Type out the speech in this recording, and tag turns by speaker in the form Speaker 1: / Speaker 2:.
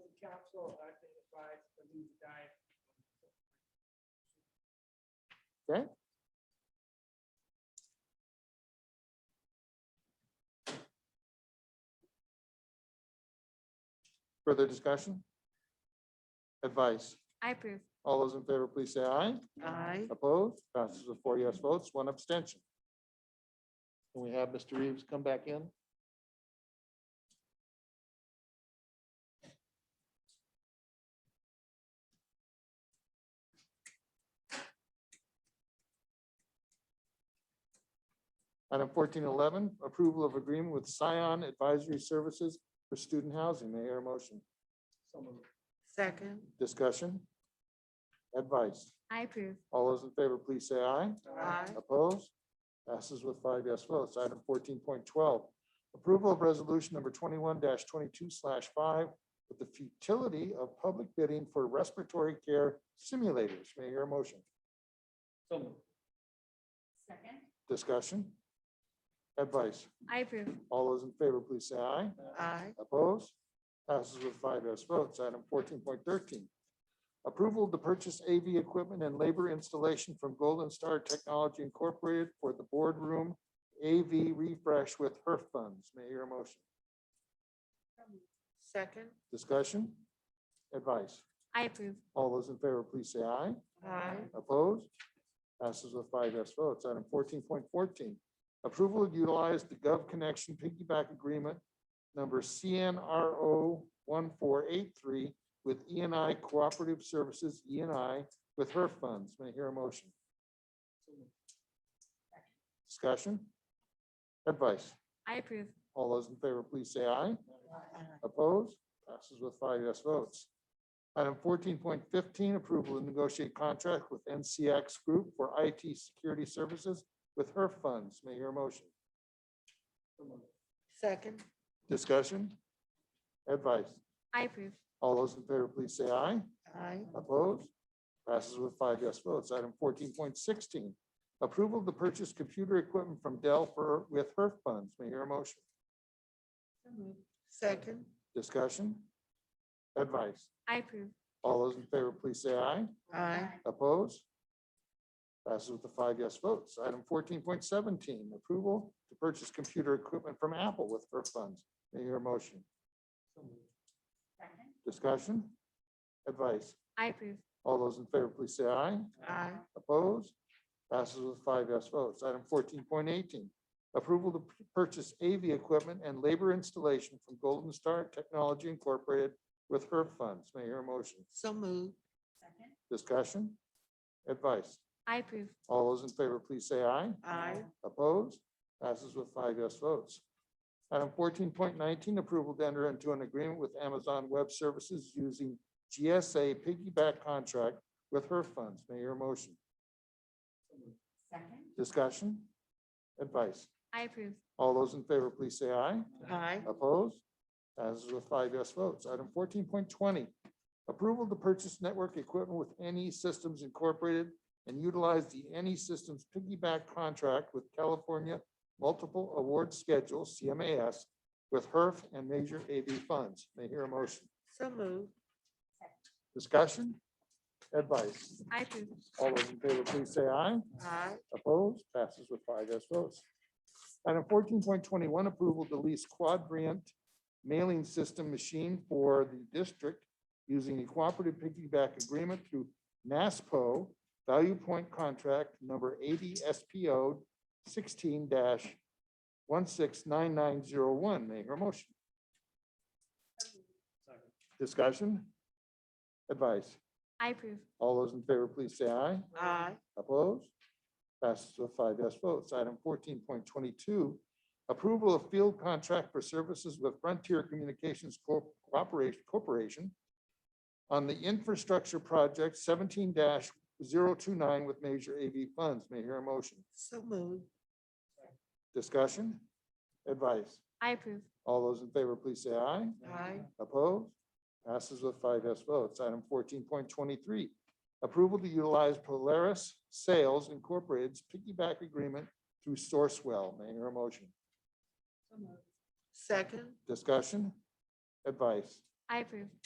Speaker 1: things to die.
Speaker 2: Further discussion? Advice?
Speaker 3: I approve.
Speaker 2: All those in favor, please say aye.
Speaker 4: Aye.
Speaker 2: Opposed? Passes with four yes votes, one abstention. Can we have Mr. Reeves come back in? Item fourteen eleven, approval of agreement with Scion Advisory Services for Student Housing. May I hear a motion?
Speaker 4: Second.
Speaker 2: Discussion? Advice?
Speaker 3: I approve.
Speaker 2: All those in favor, please say aye.
Speaker 4: Aye.
Speaker 2: Opposed? Passes with five yes votes. Item fourteen point twelve, approval of resolution number twenty-one twenty-two five with the futility of public bidding for respiratory care simulators. May I hear a motion?
Speaker 1: So moved.
Speaker 3: Second.
Speaker 2: Discussion? Advice?
Speaker 3: I approve.
Speaker 2: All those in favor, please say aye.
Speaker 4: Aye.
Speaker 2: Opposed? Passes with five yes votes. Item fourteen point thirteen. Approval to purchase AV equipment and labor installation from Golden Star Technology Incorporated for the boardroom AV refresh with HERF funds. May I hear a motion?
Speaker 4: Second.
Speaker 2: Discussion? Advice?
Speaker 3: I approve.
Speaker 2: All those in favor, please say aye.
Speaker 4: Aye.
Speaker 2: Opposed? Passes with five yes votes. Item fourteen point fourteen. Approval to utilize the Gov Connection piggyback agreement number CNRO one four eight three with ENI Cooperative Services, ENI, with her funds. May I hear a motion? Discussion? Advice?
Speaker 3: I approve.
Speaker 2: All those in favor, please say aye.
Speaker 4: Aye.
Speaker 2: Opposed? Passes with five yes votes. Item fourteen point fifteen, approval to negotiate contract with NCX Group for IT security services with her funds. May I hear a motion?
Speaker 4: Second.
Speaker 2: Discussion? Advice?
Speaker 3: I approve.
Speaker 2: All those in favor, please say aye.
Speaker 4: Aye.
Speaker 2: Opposed? Passes with five yes votes. Item fourteen point sixteen, approval to purchase computer equipment from Dell for, with her funds. May I hear a motion?
Speaker 4: Second.
Speaker 2: Discussion? Advice?
Speaker 3: I approve.
Speaker 2: All those in favor, please say aye.
Speaker 4: Aye.
Speaker 2: Opposed? Passes with the five yes votes. Item fourteen point seventeen, approval to purchase computer equipment from Apple with her funds. May I hear a motion? Discussion? Advice?
Speaker 3: I approve.
Speaker 2: All those in favor, please say aye.
Speaker 4: Aye.
Speaker 2: Opposed? Passes with five yes votes. Item fourteen point eighteen, approval to p- purchase AV equipment and labor installation from Golden Star Technology Incorporated with her funds. May I hear a motion?
Speaker 4: So moved.
Speaker 2: Discussion? Advice?
Speaker 3: I approve.
Speaker 2: All those in favor, please say aye.
Speaker 4: Aye.
Speaker 2: Opposed? Passes with five yes votes. Item fourteen point nineteen, approval to enter into an agreement with Amazon Web Services using GSA piggyback contract with her funds. May your motion.
Speaker 3: Second.
Speaker 2: Discussion? Advice?
Speaker 3: I approve.
Speaker 2: All those in favor, please say aye.
Speaker 4: Aye.
Speaker 2: Opposed? Passes with five yes votes. Item fourteen point twenty, approval to purchase network equipment with NE Systems Incorporated and utilize the NE Systems piggyback contract with California Multiple Award Schedule, CMAS, with HERF and major AV funds. May I hear a motion.
Speaker 4: So moved.
Speaker 2: Discussion? Advice?
Speaker 3: I approve.
Speaker 2: All those in favor, please say aye.
Speaker 4: Aye.
Speaker 2: Opposed? Passes with five yes votes. Item fourteen point twenty-one, approval to lease quadrant mailing system machine for the district using a cooperative piggyback agreement through NASPO Value Point Contract Number eighty SPO sixteen one six nine nine zero one. May I hear a motion? Discussion? Advice?
Speaker 3: I approve.
Speaker 2: All those in favor, please say aye.
Speaker 4: Aye.
Speaker 2: Opposed? Passes with five yes votes. Item fourteen point twenty-two, approval of field contract for services with Frontier Communications Corp- Corporation Corporation on the infrastructure project seventeen 29 with major AV funds. May I hear a motion.
Speaker 4: So moved.
Speaker 2: Discussion? Advice?
Speaker 3: I approve.
Speaker 2: All those in favor, please say aye.
Speaker 4: Aye.
Speaker 2: Opposed? Passes with five yes votes. Item fourteen point twenty-three. Approval to utilize Polaris Sales Incorporated's piggyback agreement through Sourcewell. May I hear a motion?
Speaker 4: Second.
Speaker 2: Discussion? Advice?
Speaker 3: I approve.